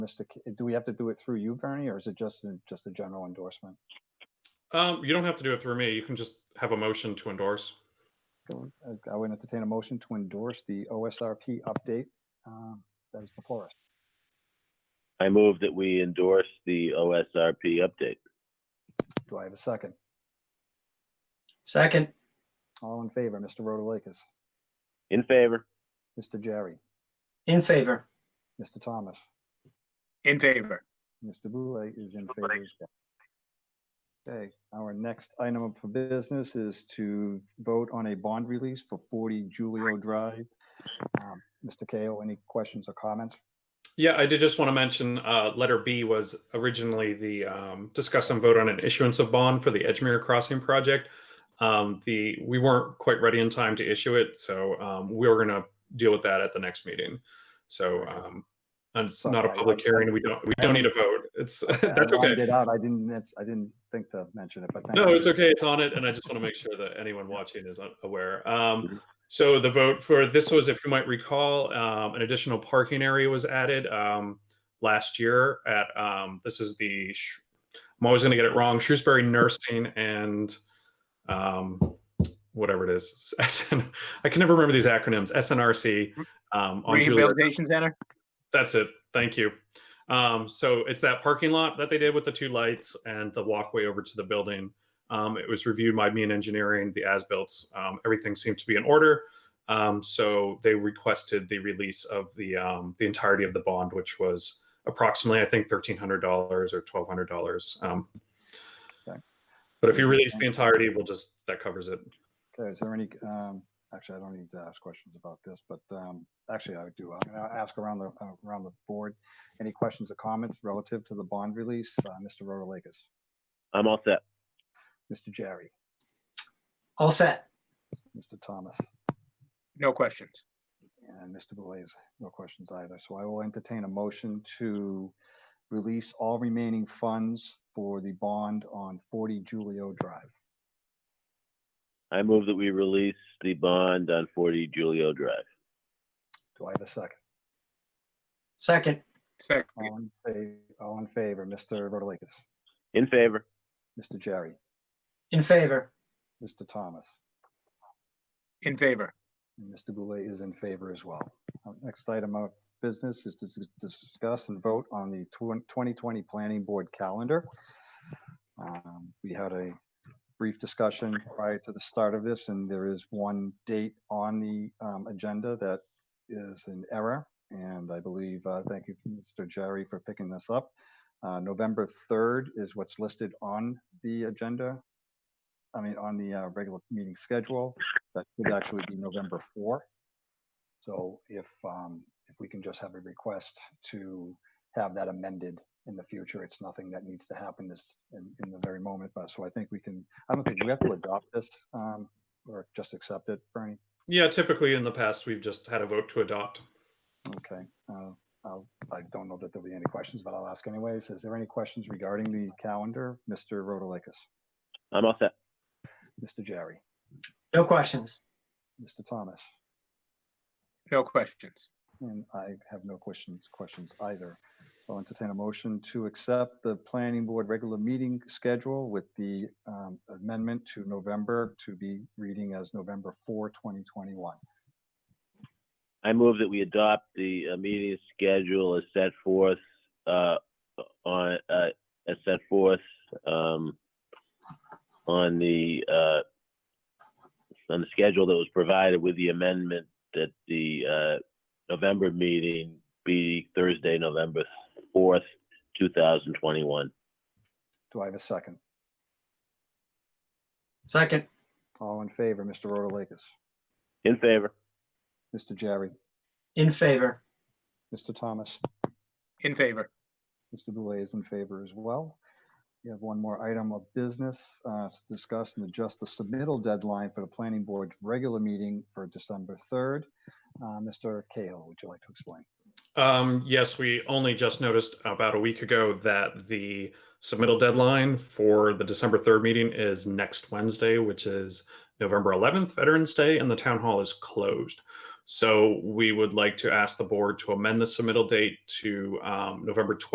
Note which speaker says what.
Speaker 1: Mr. K- Do we have to do it through you, Bernie, or is it just, a- just a general endorsement?
Speaker 2: Um, you don't have to do it through me. You can just have a motion to endorse.
Speaker 1: Uh, I would entertain a motion to endorse the OSRP update um, that is before us.
Speaker 3: I move that we endorse the OSRP update.
Speaker 1: Do I have a second?
Speaker 4: Second,
Speaker 1: All in favor, Mr. Rotalakis,
Speaker 3: In favor?
Speaker 1: Mr. Jerry,
Speaker 4: in favor.
Speaker 1: Mr. Thomas,
Speaker 5: In favor.
Speaker 1: Mr. Boulay is in favor as well. Okay, our next item up for business is to vote on a bond release for 40 Julio Drive. Um, Mr. Kao, any questions or comments?
Speaker 2: Yeah, I did just want to mention uh, letter B was originally the um, discuss and vote on an issuance of bond for the Edgemere Crossing project. Um, the we weren't quite ready in time to issue it, so um, we were going to deal with that at the next meeting. So um, and it's not a
Speaker 1: Sorry, I-
Speaker 2: public
Speaker 1: I-
Speaker 2: hearing. We don't we don't need a vote. It's that's
Speaker 1: I
Speaker 2: okay.
Speaker 1: lined it out. I didn't, that's- I didn't think to mention it, but. thank
Speaker 2: No,
Speaker 1: you.
Speaker 2: it's okay. It's on it, and I just want to make sure that anyone watching is aware. Um, so the vote for this was, if you might recall, um, an additional parking area was added um, last year at um, this is the Sh- I'm always going to get it wrong Shrewsbury Nursing and um, whatever it is SN, I can never remember these acronyms SNRC um, on Julia
Speaker 5: Rehabilitation center?
Speaker 2: that's it. Thank you. Um, so it's that parking lot that they did with the two lights and the walkway over to the building. Um, it was reviewed by me and engineering, the as built. Um, everything seems to be in order. Um, so they requested the release of the um, the entirety of the bond, which was approximately, I think, thirteen hundred dollars or twelve hundred dollars. Um,
Speaker 1: Okay.
Speaker 2: But if you release the entirety, we'll just that covers it.
Speaker 1: Okay, is there any, um, actually, I don't need to ask questions about this, but, um, actually, I do, I'm gonna ask around the, uh, around the board. Any questions or comments relative to the bond release? Uh, Mr. Rotalakis,
Speaker 3: I'm all set.
Speaker 1: Mr. Jerry,
Speaker 4: All set.
Speaker 1: Mr. Thomas,
Speaker 5: No questions.
Speaker 1: and Mr. Blaze, no questions either. So I will entertain a motion to release all remaining funds for the bond on forty Julio Drive.
Speaker 3: I move that we release the bond on 40 Julio Drive.
Speaker 1: Do I have a second?
Speaker 4: Second,
Speaker 5: Second.
Speaker 1: All in favor, all in favor, Mr. Rotalakis,
Speaker 3: In favor?
Speaker 1: Mr. Jerry,
Speaker 4: in favor.
Speaker 1: Mr. Thomas,
Speaker 5: In favor.
Speaker 1: And Mr. Boulay is in favor as well. Our Next item of business is to dis- discuss and vote on the twen- 2020 Planning Board calendar. Um, We had a brief discussion prior to the start of this, and there is one date on the um, agenda that is an error. And I believe, uh, thank you, Mr. Jerry, for picking this up. Uh, November 3rd is what's listed on the agenda. I mean, on the uh, regular meeting schedule that should actually be November 4. So if, um, if we can just have a request to have that amended in the future, it's nothing that needs to happen this, in, in the very moment, but, so I think we can, I don't think we have to adopt this, um, or just accept it, Bernie.
Speaker 2: Yeah, typically in the past we've just had a vote to adopt.
Speaker 1: Okay, uh, I'll, I don't know that there'll be any questions, but I'll ask anyways. Is there any questions regarding the calendar? Mr. Rotalakis,
Speaker 3: I'm all set.
Speaker 1: Mr. Jerry,
Speaker 4: No questions.
Speaker 1: Mr. Thomas?
Speaker 5: No questions.
Speaker 1: And I have no questions, questions either. So I'll entertain a motion to accept the planning board regular meeting schedule with the um, amendment to November to be reading as November 4, 2021.
Speaker 3: I move that we adopt the uh, meeting schedule as set forth, uh, on, uh, as set forth, um, on the, uh, on the schedule that was provided with the amendment that the, uh, November meeting be Thursday, November fourth, two thousand twenty-one.
Speaker 1: Do I have a second?
Speaker 4: Second,
Speaker 1: All in favor, Mr. Rotalakis,
Speaker 3: In favor?
Speaker 1: Mr. Jerry,
Speaker 4: in favor.
Speaker 1: Mr. Thomas?
Speaker 5: In favor.
Speaker 1: Mr. Boulay is in favor as well. We have one more item of business uh, to discuss and adjust the submittal deadline for the planning board's regular meeting for December 3rd. Uh, Mr. Cahill, would you like to explain?
Speaker 2: Um, yes, we only just noticed about a week ago that the submittal deadline for the December 3rd meeting is next Wednesday, which is November 11th, Veterans Day, and the town hall is closed. So we would like to ask the board to amend the submittal date to um, November 12th.